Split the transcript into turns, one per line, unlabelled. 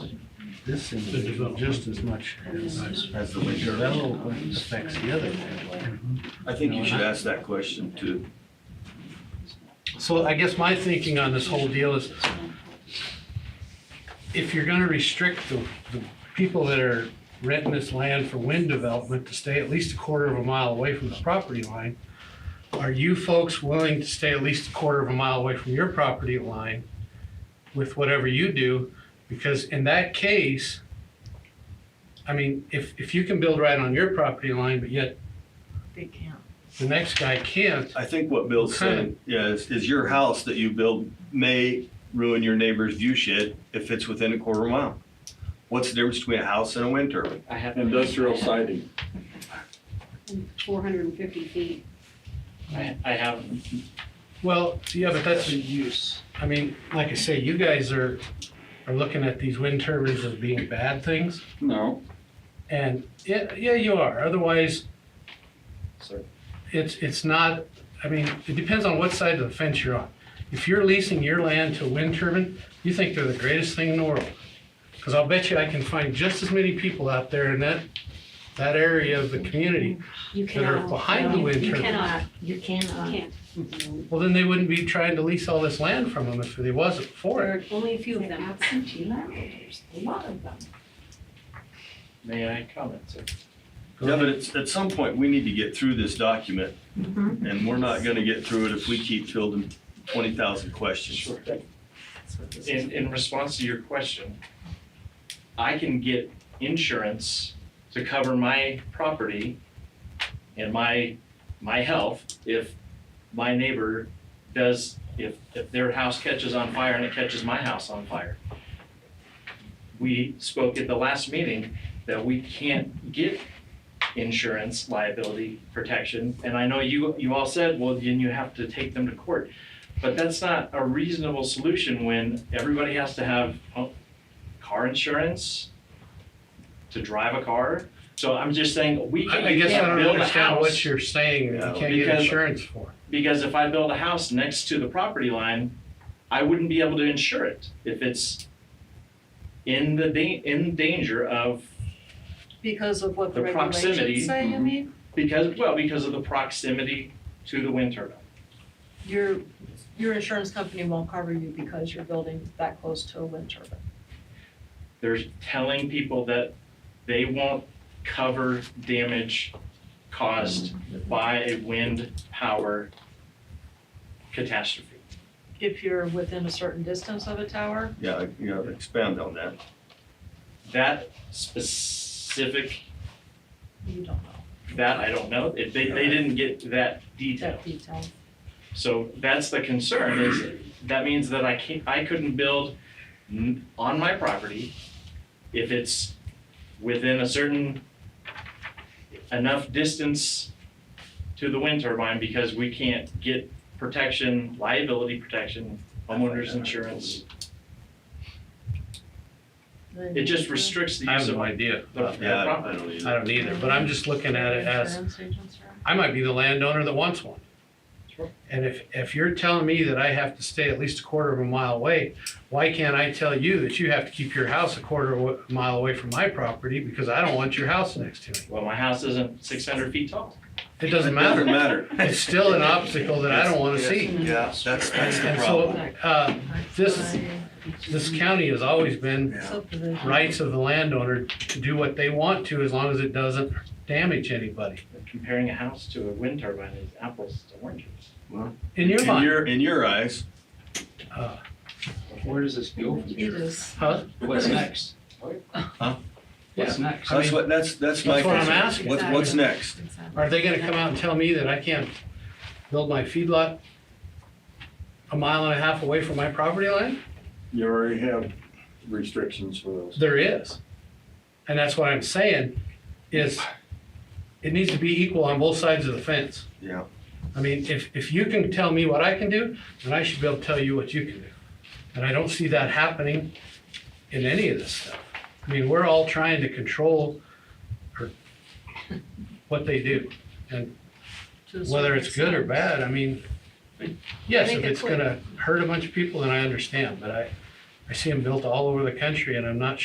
this seems
The development.
just as much as,
As the
the
winter.
development affects the other. one.
I think you should ask that question too.
So I guess my thinking on this whole deal is, if you're gonna restrict the, the people that are renting this land for wind development to stay at least a quarter of a mile away from the property line, are you folks willing to stay at least a quarter of a mile away from your property line with whatever you do? Because in that case, I mean, if, if you can build right on your property line, but yet
They can't.
the next guy can't,
I think what Bill's saying, yeah, is, is your house that you build may ruin your neighbor's view shed if it's within a quarter mile. What's the difference between a house and a wind turbine?
I have.
Industrial siding.
four hundred and fifty feet.
I I have
well, yeah, but that's,
a use.
I mean, like I say, you guys are, are looking at these wind turbines as being bad things,
No,
and yeah, yeah, you are, otherwise,
Sorry.
it's, it's not, I mean, it depends on what side of the fence you're on. If you're leasing your land to a wind turbine, you think they're the greatest thing in the world. Cause I'll bet you I can find just as many people out there in that, that area of the community.
You
That are
cannot.
behind the
you-
wind
You
turbines.
cannot,
You cannot.
can't.
Well, then they wouldn't be trying to lease all this land from them if they wasn't for
There
it.
are only a few of
They're
them.
absentee landholders, a lot of them.
May I comment, sir?
Yeah, but it's, at some point, we need to get through this document, and we're not gonna get through it if we keep fielding twenty thousand questions.
That's what this is.
In in response to your question, I can get insurance to cover my property and my my health if my neighbor does, if if their house catches on fire and it catches my house on fire. We spoke at the last meeting that we can't get insurance liability protection. And I know you you all said, well, then you have to take them to court. But that's not a reasonable solution when everybody has to have uh, car insurance to drive a car. So I'm just saying, we
I
can
I guess I don't
build a
understand what
house.
you're saying, that you can't get
Because-
insurance for.
Because if I build a house next to the property line, I wouldn't be able to insure it if it's in the da- in danger of,
Because of what the
The proximity.
regulations say, you
Mm-hmm.
Mhm.
mean?
because, well, because of the proximity to the wind turbine.
Your, your insurance company won't cover you because you're building that close to a wind turbine.
They're telling people that they won't cover damage caused by a wind power catastrophe.
If you're within a certain distance of a tower,
Yeah, you gotta expand on that.
That specific,
you don't know
that I don't know, It- they, they didn't get that detail.
that detail.
So that's the concern is, that means that I can't, I couldn't build
Mm-hmm.
n- on my property if it's within a certain enough distance to the wind turbine because we can't get protection, liability protection, homeowners insurance.
Then
It just restricts the
I
use
have
of
no
my,
idea.
the the
Yeah, I- I
property.
don't either.
I don't either, but I'm just looking at it as,
Insurance agents are.
I might be the landowner that wants one.
Sure.
And if, if you're telling me that I have to stay at least a quarter of a mile away, why can't I tell you that you have to keep your house a quarter of a mile away from my property because I don't want your house next to me?
Well, my house isn't six hundred feet tall.
It doesn't matter.
Doesn't matter.
It's still an obstacle that I don't wanna see.
Yeah, that's, that's the
And so,
problem.
uh, this, this county has always been
Yeah.
Subdivision.
rights of the landowner to do what they want to as long as it doesn't damage anybody,
Comparing a house to a wind turbine is apples to oranges.
in your
In
mind.
your, in your eyes,
Uh,
Where does this go from
It
here?
is.
Huh?
What's next? What's
Yeah.
next?
I
that's
mean-
what, that's, that's my
That's what I'm
concern.
asking.
What's, what's next?
Are they gonna come out and tell me that I can't build my feedlot a mile and a half away from my property line?
You already have restrictions for those.
There is. And that's what I'm saying, is it needs to be equal on both sides of the fence.
Yeah.
I mean, if, if you can tell me what I can do, then I should be able to tell you what you can do. And I don't see that happening in any of this stuff. I mean, we're all trying to control or what they do.
to a
whether it's
certain
good or
extent.
bad, I mean, yes, if
Make it
it's
clear.
gonna hurt a bunch of people, then I understand, but I, I see them built all over the country and I'm not